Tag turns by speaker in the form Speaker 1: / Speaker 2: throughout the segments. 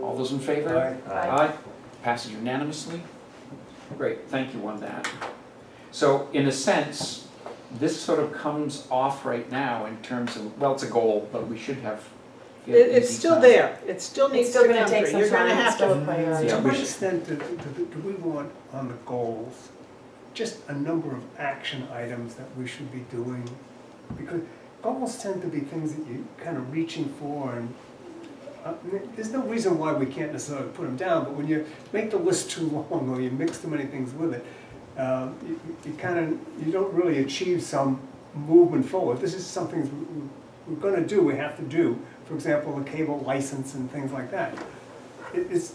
Speaker 1: All those in favor? Aye. Passes unanimously. Great, thank you on that. So in a sense, this sort of comes off right now in terms of, well, it's a goal, but we should have.
Speaker 2: It, it's still there, it still
Speaker 3: It's
Speaker 2: needs to
Speaker 3: still
Speaker 2: come
Speaker 3: gonna take
Speaker 2: through,
Speaker 3: some
Speaker 2: you're gonna
Speaker 3: time, it's
Speaker 2: have to.
Speaker 3: still a
Speaker 1: Yeah,
Speaker 3: priority.
Speaker 4: uh, To
Speaker 1: we
Speaker 4: what
Speaker 1: should-
Speaker 4: extent do, do, do we want on the goals, just a number of action items that we should be doing? Because goals tend to be things that you're kind of reaching for and, uh, there's no reason why we can't necessarily put them down, but when you make the list too long or you mix too many things with it, um, you, you- you kind of, you don't really achieve some movement forward. This is something we- we- we're gonna do, we have to do, for example, the cable license and things like that. It- It's,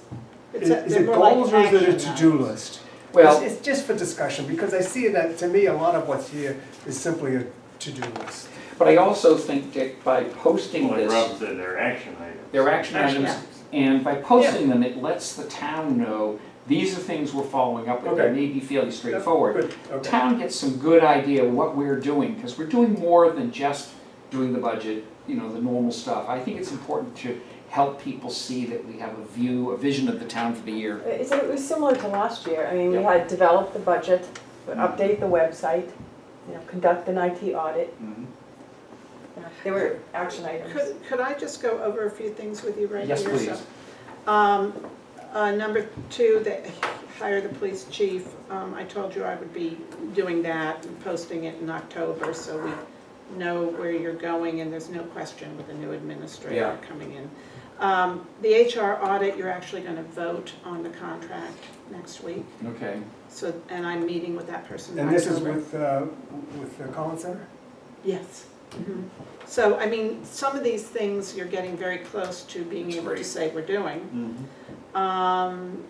Speaker 2: It's a-
Speaker 4: is
Speaker 2: they're
Speaker 4: it
Speaker 2: more like
Speaker 4: goals or is it a
Speaker 2: action
Speaker 4: to-do
Speaker 2: items.
Speaker 4: list?
Speaker 1: Well,
Speaker 4: It's it's just for discussion, because I see that, to me, a lot of what's here is simply a to-do list.
Speaker 1: but I also think, Dick, by posting
Speaker 5: Like Rob
Speaker 1: this,
Speaker 5: said, they're action items.
Speaker 1: their action
Speaker 2: Action
Speaker 1: items, and by posting them, it lets the town know, these are things we're following up with, they
Speaker 4: Okay.
Speaker 1: may be fairly straightforward.
Speaker 4: Good, okay.
Speaker 1: town gets some good idea of what we're doing, because we're doing more than just doing the budget, you know, the normal stuff. I think it's important to help people see that we have a view, a vision of the town for the year.
Speaker 3: It's, it was similar to last year, I mean, we
Speaker 1: Yeah.
Speaker 3: had developed the budget, update the website, you know, conduct an IT audit, you know, there were action items.
Speaker 2: Could, could I just go over a few things with you right here?
Speaker 1: Yes, please.
Speaker 2: So, Um, uh, number two, they hire the police chief, um, I told you I would be doing that and posting it in October, so we know where you're going, and there's no question with the new
Speaker 1: Yeah.
Speaker 2: administrator coming in. Um, the HR audit, you're actually gonna vote on the contract next week,
Speaker 1: Okay,
Speaker 2: so, and I'm meeting with that person in
Speaker 4: And this is
Speaker 2: October.
Speaker 4: with, uh, with the Collins Center?
Speaker 2: Yes. Mm-hmm. So, I mean, some of these things you're getting very close to being
Speaker 1: That's
Speaker 2: able to
Speaker 1: great.
Speaker 2: say we're doing. Um,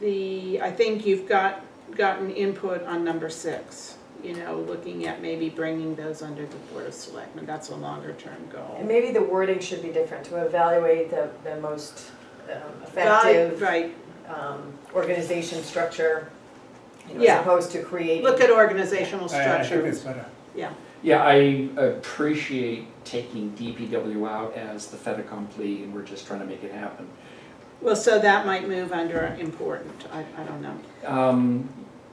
Speaker 2: The, I think you've got, gotten input on number six, you know, looking at maybe bringing those under the Board of Selectmen, that's a longer term
Speaker 3: And
Speaker 2: goal.
Speaker 3: maybe the wording should be different, to evaluate the, the most um,
Speaker 2: Guide-
Speaker 3: effective
Speaker 2: Right,
Speaker 3: um, organization structure, you know,
Speaker 2: Yeah.
Speaker 3: as opposed to creating.
Speaker 2: look at organizational
Speaker 4: I- I think
Speaker 2: structure,
Speaker 4: it's better.
Speaker 1: yeah, I appreciate taking DPW out as the fait accompli, and we're just trying to make it happen.
Speaker 2: well, so that might move under important, I, I don't know.
Speaker 1: Um,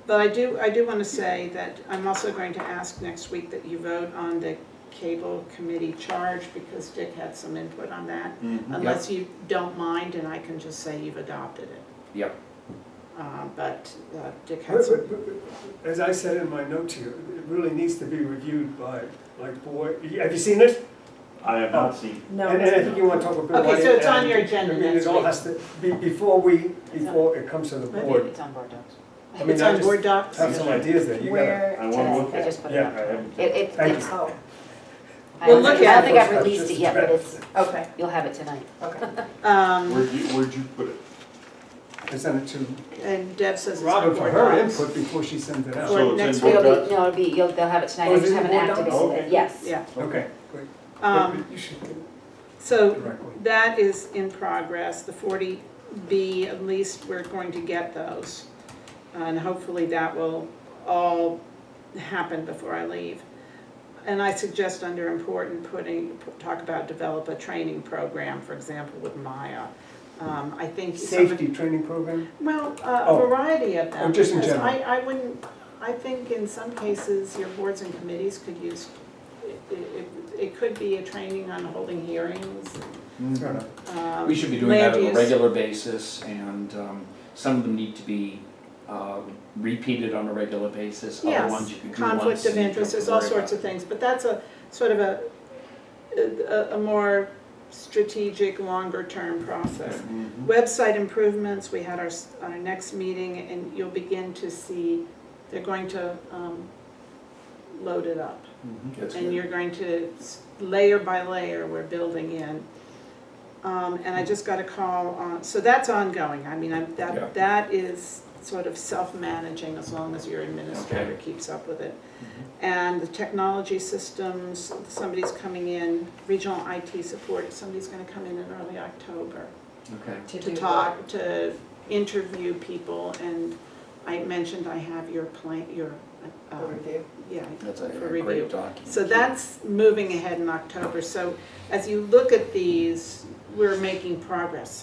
Speaker 2: But I do, I do want to say that I'm also going to ask next week that you vote on the cable committee charge because Dick had some input on that.
Speaker 5: Mm-hmm.
Speaker 2: Unless you don't mind and I can just say you've adopted it.
Speaker 1: Yep.
Speaker 2: Uh, But uh, Dick had some,
Speaker 4: As I said in my note to you, it really needs to be reviewed by, like, board, have you seen it?
Speaker 5: I have not seen.
Speaker 3: No,
Speaker 4: And and I think
Speaker 3: it's-
Speaker 4: you want to talk a bit about it.
Speaker 2: Okay, so it's on
Speaker 4: and-
Speaker 2: your agenda
Speaker 4: I mean,
Speaker 2: next
Speaker 4: it all
Speaker 2: week.
Speaker 4: has to, be- before we, before it comes to the
Speaker 2: Maybe
Speaker 4: board,
Speaker 6: It's on board docs.
Speaker 4: I mean,
Speaker 2: it's
Speaker 4: I
Speaker 2: on
Speaker 4: just
Speaker 2: board docs.
Speaker 4: have some ideas there, you gotta.
Speaker 5: I
Speaker 6: Where
Speaker 5: want to look
Speaker 6: today, I
Speaker 5: at
Speaker 6: just
Speaker 5: it.
Speaker 6: put it
Speaker 5: Yeah,
Speaker 6: up.
Speaker 5: I haven't.
Speaker 6: It, it,
Speaker 4: Thank
Speaker 6: it's,
Speaker 3: Oh,
Speaker 2: We'll
Speaker 6: I don't
Speaker 2: look
Speaker 6: think-
Speaker 2: at
Speaker 6: I don't
Speaker 2: it.
Speaker 6: think I've released it yet, but it's,
Speaker 3: okay,
Speaker 6: you'll have it tonight.
Speaker 3: okay.
Speaker 2: Um,
Speaker 5: Where'd you, where'd you put it?
Speaker 4: Present it to
Speaker 2: And Deb says it's on
Speaker 4: Robin for
Speaker 2: board
Speaker 4: her
Speaker 2: docs.
Speaker 4: input before she sends it out.
Speaker 2: Or
Speaker 5: So
Speaker 2: next
Speaker 5: it's in
Speaker 6: It'll
Speaker 5: board
Speaker 6: be,
Speaker 5: docs?
Speaker 6: no, it'll be, you'll, they'll have it tonight,
Speaker 4: Oh,
Speaker 6: I
Speaker 4: is
Speaker 6: just
Speaker 4: it
Speaker 6: haven't
Speaker 4: board docs?
Speaker 6: activated it,
Speaker 5: Okay.
Speaker 6: yes.
Speaker 2: Yeah,
Speaker 4: Okay, great.
Speaker 2: um,
Speaker 4: You should get it
Speaker 2: so
Speaker 4: directly.
Speaker 2: That is in progress, the 40B, at least we're going to get those. And hopefully that will all happen before I leave. And I suggest under important putting, talk about develop a training program, for example, with Maya. Um, I think. some of-
Speaker 4: Safety training program?
Speaker 2: Well, a
Speaker 4: Oh.
Speaker 2: variety of them.
Speaker 4: Oh, just in
Speaker 2: because
Speaker 4: general.
Speaker 2: I, I wouldn't, I think in some cases, your boards and committees could use, it, it, it could be a training on holding hearings,
Speaker 4: Fair enough.
Speaker 2: um,
Speaker 1: We should be doing that
Speaker 2: land
Speaker 1: on a
Speaker 2: use.
Speaker 1: regular basis, and um, some of them need to be uh, repeated on a regular basis. Other ones you can
Speaker 2: Yes,
Speaker 1: do once
Speaker 2: conflict
Speaker 1: and
Speaker 2: of
Speaker 1: you don't
Speaker 2: interest,
Speaker 1: have to
Speaker 2: there's all
Speaker 1: worry
Speaker 2: sorts
Speaker 1: about
Speaker 2: of things, but that's a, sort of a, a, a more strategic, longer-term process.
Speaker 5: Mm-hmm.
Speaker 2: Website improvements, we had our, s- our next meeting, and you'll begin to see, they're going to, um, load it up.
Speaker 5: Mm-hmm.
Speaker 1: it. That's
Speaker 2: And
Speaker 1: good.
Speaker 2: you're going to, s- layer by layer, we're building in. Um, and I just got a call on, so that's ongoing, I mean, I'm,
Speaker 1: Yeah.
Speaker 2: that, that is sort of self-managing as long as your administrator
Speaker 1: Okay. Mm-hmm.
Speaker 2: keeps up with it. And the technology systems, somebody's coming in, regional IT support, somebody's gonna come in in early October
Speaker 1: Okay.
Speaker 2: to
Speaker 3: do
Speaker 2: talk, to interview people, and I mentioned I have your plan, your,
Speaker 3: the
Speaker 2: uh,
Speaker 3: Review.
Speaker 2: yeah,
Speaker 1: That's
Speaker 2: for
Speaker 1: a- a
Speaker 2: review.
Speaker 1: great document.
Speaker 2: So that's moving ahead in October, so as you look at these, we're making progress.